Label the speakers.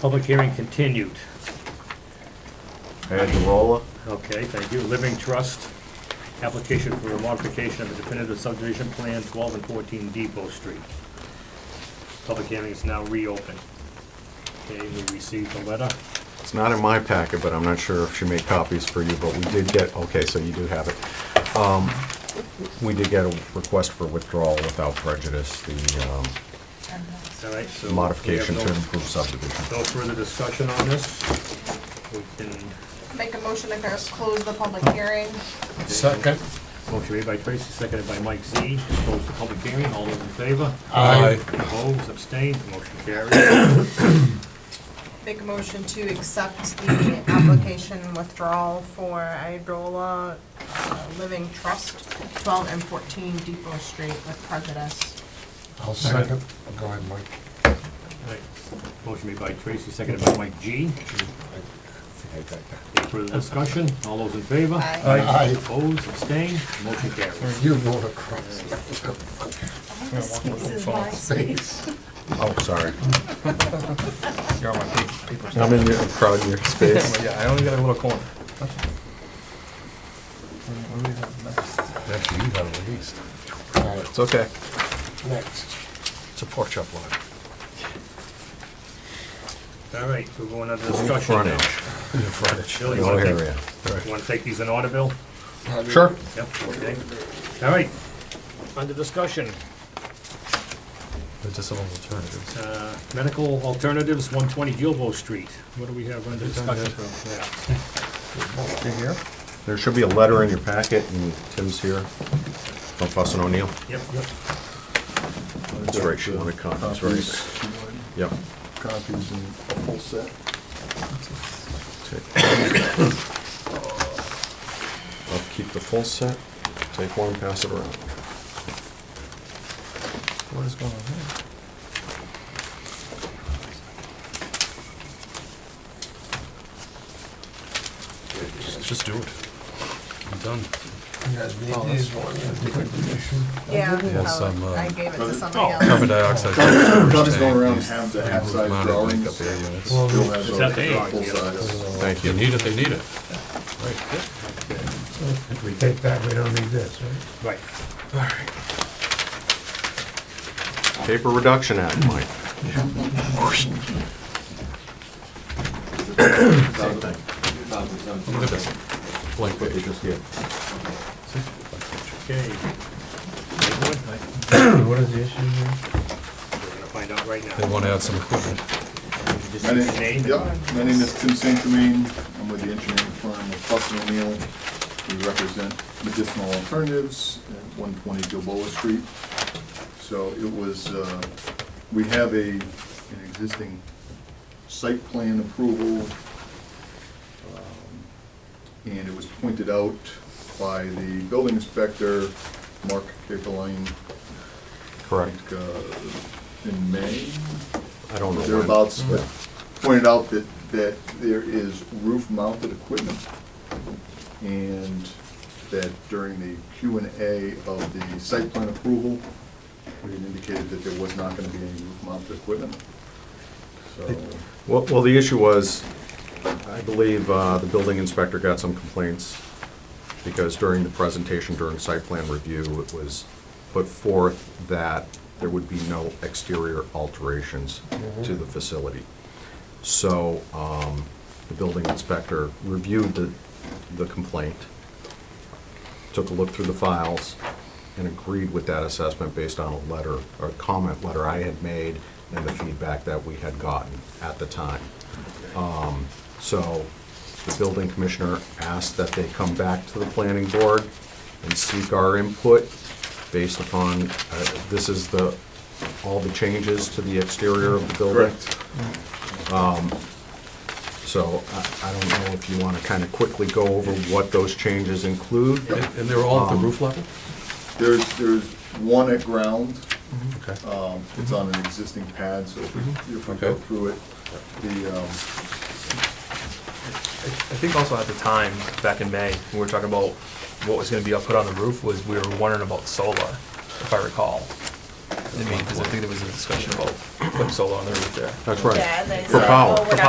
Speaker 1: Public hearing continued.
Speaker 2: Head the roller.
Speaker 1: Okay, thank you. Living Trust, application for a modification of the definitive subdivision plan, 12 and 14 Depot Street. Public hearing is now reopened. Okay, we received a letter.
Speaker 2: It's not in my packet, but I'm not sure if she made copies for you, but we did get, okay, so you do have it. Um, We did get a request for withdrawal without prejudice, the um,
Speaker 1: All right, so. we have
Speaker 2: modification to
Speaker 1: no-
Speaker 2: improve subdivision.
Speaker 1: No further discussion on this. We can,
Speaker 3: Make a motion to close the public hearing.
Speaker 4: Second.
Speaker 1: motion made by Tracy, seconded by Mike Z. Close the public hearing. All those in favor?
Speaker 4: Aye.
Speaker 1: Opposed, abstained, motion carries.
Speaker 3: Make a motion to accept the application withdrawal for Idola uh, Living Trust, 12 and 14 Depot Street with prejudice.
Speaker 4: I'll second. Go ahead, Mike.
Speaker 1: All right, Motion made by Tracy, seconded by Mike G. Any further discussion? All those in favor?
Speaker 3: Aye.
Speaker 4: Aye.
Speaker 1: Opposed, abstained, motion carries.
Speaker 4: You go across
Speaker 3: This is my
Speaker 4: the face.
Speaker 2: Oh, sorry.
Speaker 5: You're on my pa- paper.
Speaker 2: I'm in your, crowd your space.
Speaker 5: Yeah, I only got a little corner.
Speaker 2: Actually, you got it released.
Speaker 4: All right,
Speaker 2: It's okay.
Speaker 4: next.
Speaker 2: It's a pork chop lot.
Speaker 1: All right, we're going under discussion
Speaker 2: Front
Speaker 1: now.
Speaker 2: edge.
Speaker 1: Bill, you
Speaker 2: The whole
Speaker 1: wanna take-
Speaker 2: area.
Speaker 1: you wanna take these in order, Bill?
Speaker 2: Sure.
Speaker 1: Yep, okay. All right, under discussion,
Speaker 2: Medicinal alternatives.
Speaker 1: uh, medical alternatives, one twenty Gilbo Street. What do we have under discussion? Yeah.
Speaker 5: You here?
Speaker 2: There should be a letter in your packet, and Tim's here from Fuss and O'Neill.
Speaker 1: Yep, yep.
Speaker 2: That's right, she wanted copies, right? Yep.
Speaker 4: Copies and a full set.
Speaker 2: Take- I'll keep the full set, take one, pass it around.
Speaker 5: What is going on here?
Speaker 2: Just do it.
Speaker 1: I'm done.
Speaker 4: You guys need these ones.
Speaker 3: Yeah, Oh,
Speaker 6: Yes, I'm, uh,
Speaker 3: I gave it to somebody
Speaker 1: Oh.
Speaker 3: else.
Speaker 6: Carbon dioxide. filters
Speaker 7: Tommy's going
Speaker 6: tank,
Speaker 7: around
Speaker 6: these
Speaker 7: half the
Speaker 6: improve
Speaker 7: half-size
Speaker 6: amount of
Speaker 7: drawings.
Speaker 6: makeup air units.
Speaker 7: You'll have
Speaker 1: Is
Speaker 7: those
Speaker 1: that the-
Speaker 7: full size.
Speaker 2: Thank
Speaker 6: You
Speaker 2: you.
Speaker 6: need it, they need it.
Speaker 4: If we take that, we don't need this, right?
Speaker 1: Right.
Speaker 2: Paper Reduction Act, Mike. Same thing.
Speaker 6: Blank
Speaker 2: What you
Speaker 6: page.
Speaker 2: just did.
Speaker 1: Okay. Anyone?
Speaker 4: What is the issue here?
Speaker 1: We're gonna find out right
Speaker 6: They
Speaker 1: now.
Speaker 6: want to add some equipment.
Speaker 1: Just
Speaker 7: My
Speaker 1: your
Speaker 7: name,
Speaker 1: name.
Speaker 7: yep, my name is Tim St. Germain, I'm with the engineering firm of Fuss and O'Neill. We represent medicinal alternatives at one twenty Gilboa Street. So it was, uh, we have a, an existing site plan approval. um, And it was pointed out by the building inspector, Mark Capeline, I
Speaker 2: Correct.
Speaker 7: think, uh, in May,
Speaker 2: I don't know. when.
Speaker 7: thereabouts, but pointed out that, that there is roof-mounted equipment, and that during the Q and A of the site plan approval, we had indicated that there was not gonna be any roof-mounted equipment. So,
Speaker 2: Well, well, the issue was, I believe uh, the building inspector got some complaints because during the presentation during site plan review, it was put forth that there would be no exterior alterations to the facility. So um, the building inspector reviewed the, the complaint, took a look through the files, and agreed with that assessment based on a letter, or a comment letter I had made and the feedback that we had gotten at the time. Um, So the building commissioner asked that they come back to the planning board and seek our input based upon, uh, this is the, all the changes to the exterior of the building. Um,
Speaker 7: correct.
Speaker 2: So I- I don't know if you want to kind of quickly go over what those changes include.
Speaker 6: And and they're all
Speaker 4: Um,
Speaker 6: at the roof level?
Speaker 4: Mm-hmm.
Speaker 7: There's, there's one at ground,
Speaker 6: Okay.
Speaker 7: um,
Speaker 2: Mm-hmm.
Speaker 7: it's on an existing pad, so if we- if we go
Speaker 6: Okay.
Speaker 7: through it, the, um,
Speaker 5: I I think also at the time, back in May, when we were talking about what was gonna be up put on the roof, was we were wondering about solar, if I recall.
Speaker 8: I mean, because I think there was a discussion about putting solar on the roof there.
Speaker 4: That's right.
Speaker 3: Yeah, they
Speaker 4: For
Speaker 3: said,
Speaker 4: power.
Speaker 3: "Well, "Oh, we're
Speaker 4: For
Speaker 3: not